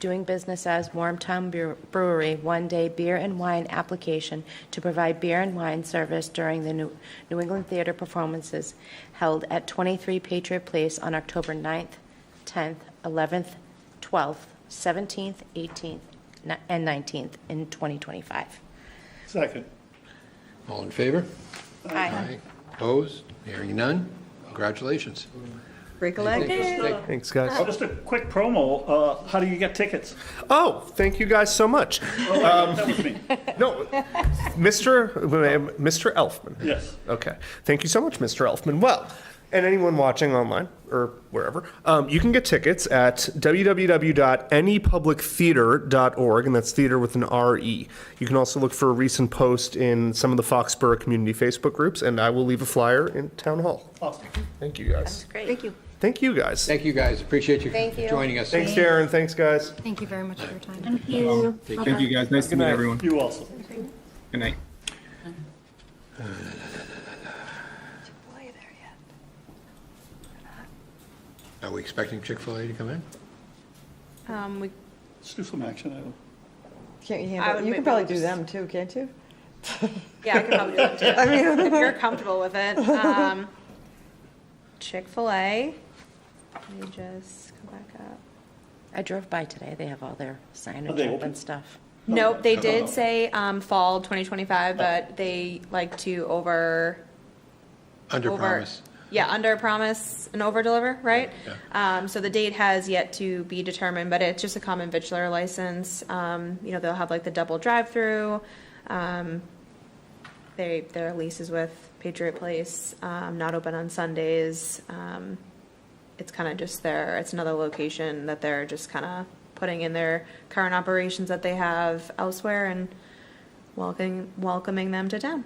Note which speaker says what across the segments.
Speaker 1: doing business as Warmtown Bre- Brewery one-day beer and wine application to provide beer and wine service during the New New England Theater performances held at 23 Patriot Place on October 9th, 10th, 11th, 12th, 17th, 18th, ni- and 19th in 2025.
Speaker 2: Second.
Speaker 3: All in favor? Opposed? Hearing none? Congratulations.
Speaker 4: Break a leg.
Speaker 5: Thanks, guys.
Speaker 2: Oh, Just a quick promo, uh, how do you get tickets?
Speaker 5: Oh, thank you guys so much.
Speaker 2: That was me,
Speaker 5: No, Mr. Mr. Elfman.
Speaker 2: yes.
Speaker 5: Okay. Thank you so much, Mr. Elfman. Well, and anyone watching online or wherever, um, you can get tickets at www.anypublictheater.org, and that's theater with an R-E. You can also look for a recent post in some of the Foxborough community Facebook groups, and I will leave a flyer in Town Hall.
Speaker 2: Awesome.
Speaker 5: Thank you, guys.
Speaker 4: Thank you.
Speaker 5: Thank you, guys.
Speaker 3: Thank you, guys. Appreciate you
Speaker 1: Thank
Speaker 3: for
Speaker 1: you.
Speaker 3: joining us.
Speaker 5: Thanks, Darren. Thanks, guys.
Speaker 6: Thank you very much for your time.
Speaker 7: Thank you, guys. Nice to meet everyone.
Speaker 2: You also.
Speaker 7: Good night.
Speaker 3: Are we expecting Chick-fil-A to come in?
Speaker 4: Um, we,
Speaker 2: Let's do some action item.
Speaker 8: Can't you
Speaker 4: I would
Speaker 8: handle, you
Speaker 4: make
Speaker 8: can probably
Speaker 4: one
Speaker 8: do
Speaker 4: just-
Speaker 8: them too, can't you?
Speaker 4: yeah, I could probably do it too,
Speaker 8: I mean,
Speaker 4: if you're comfortable with it. Um, Chick-fil-A, let me just go back up.
Speaker 1: I drove by today, they have all their
Speaker 2: Are they
Speaker 1: signage up
Speaker 2: open?
Speaker 1: and stuff.
Speaker 4: Nope, they did say, um, fall 2025, but they like to over,
Speaker 3: Under
Speaker 4: over.
Speaker 3: promise.
Speaker 4: Yeah, under promise and over deliver, right? Um, so the date has yet to be determined, but it's just a common vitular license. Um, you know, they'll have like the double drive-through. Um, they, their lease is with Patriot Place, um, not open on Sundays. Um, it's kind of just their, it's another location that they're just kind of putting in their current operations that they have elsewhere and welcoming, welcoming them to town.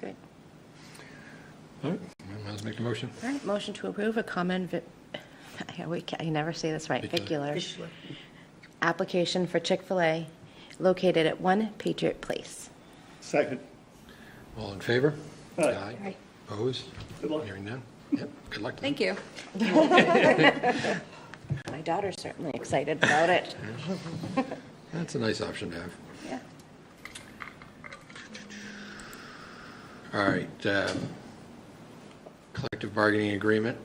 Speaker 1: Good.
Speaker 3: All right. Let's make the motion.
Speaker 1: All right, motion to approve a common, vi- I always ca- I can never say this right,
Speaker 3: Vicular.
Speaker 1: vicular, application for Chick-fil-A located at 1 Patriot Place.
Speaker 2: Second.
Speaker 3: All in favor?
Speaker 2: Aye.
Speaker 3: Opposed?
Speaker 2: Good luck.
Speaker 3: Hearing none? Yep. Good luck to them.
Speaker 4: Thank you.
Speaker 1: My daughter's certainly excited about it.
Speaker 3: That's a nice option to have.
Speaker 1: Yeah.
Speaker 3: All right. uh, Collective bargaining agreement.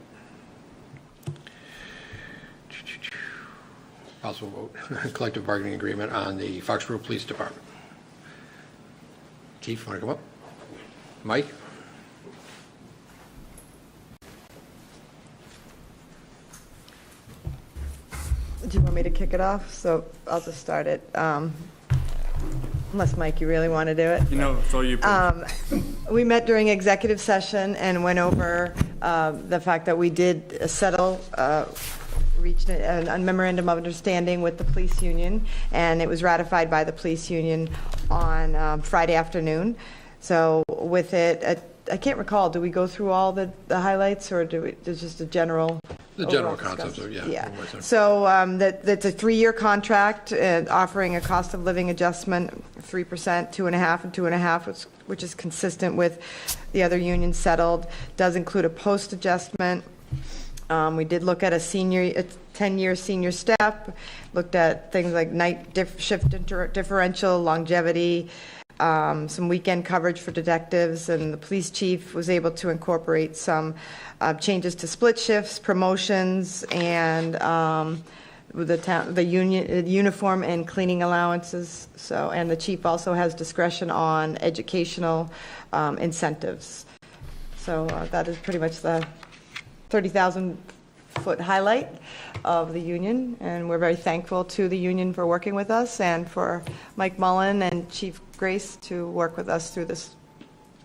Speaker 3: Possible vote, collective bargaining agreement on the Foxborough Police Department. Chief, want to come up? Mike?
Speaker 8: do you want me to kick it off? So I'll just start it. Um, Unless, Mike, you really want to do it?
Speaker 7: You know, it's all you.
Speaker 8: Um, We met during executive session and went over uh, the fact that we did settle, uh, reached a a memorandum of understanding with the police union, and it was ratified by the police union on um, Friday afternoon. So with it, uh, I can't recall, do we go through all the the highlights, or do we, there's just a general?
Speaker 3: The general
Speaker 8: overall Oh, discuss-
Speaker 3: concepts, yeah, what's there.
Speaker 8: Yeah. So um, that, that's a three-year contract, uh, offering a cost of living adjustment, 3%, two and a half, and two and a half, which- which is consistent with the other union settled, does include a post adjustment. Um, We did look at a senior, a 10-year senior step, looked at things like night dif- shift inter- differential, longevity, um, some weekend coverage for detectives, and the police chief was able to incorporate some uh, changes to split shifts, promotions, and um, with the town, the union, uh, uniform and cleaning allowances. So, and the chief also has discretion on educational um, incentives. So uh, that is pretty much the 30,000-foot highlight of the union, and we're very thankful to the union for working with us and for Mike Mullen and Chief Grace to work with us through this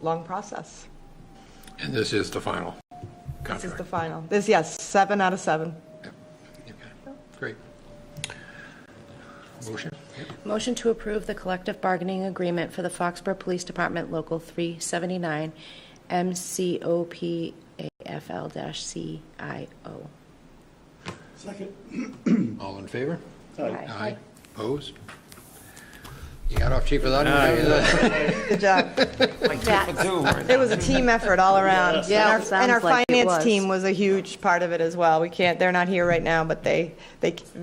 Speaker 8: long process.
Speaker 3: And this is the final
Speaker 8: This is the
Speaker 3: contract.
Speaker 8: final. This, yes, seven out of seven.
Speaker 3: Yep. Okay. Great. Motion? Yep.
Speaker 1: Motion to approve the collective bargaining agreement for the Foxborough Police Department Local 379, MCOPAFL-CIO.
Speaker 2: Second.
Speaker 3: All in favor?
Speaker 2: Aye.
Speaker 3: Aye. Opposed? You got off chief without any...
Speaker 8: Good job. It was a team effort all around.
Speaker 2: Yeah,
Speaker 8: And our-
Speaker 6: sounds
Speaker 8: And our
Speaker 6: like it
Speaker 8: finance
Speaker 6: was.
Speaker 8: team was a huge part of it as well. We can't, they're not here right now, but they, they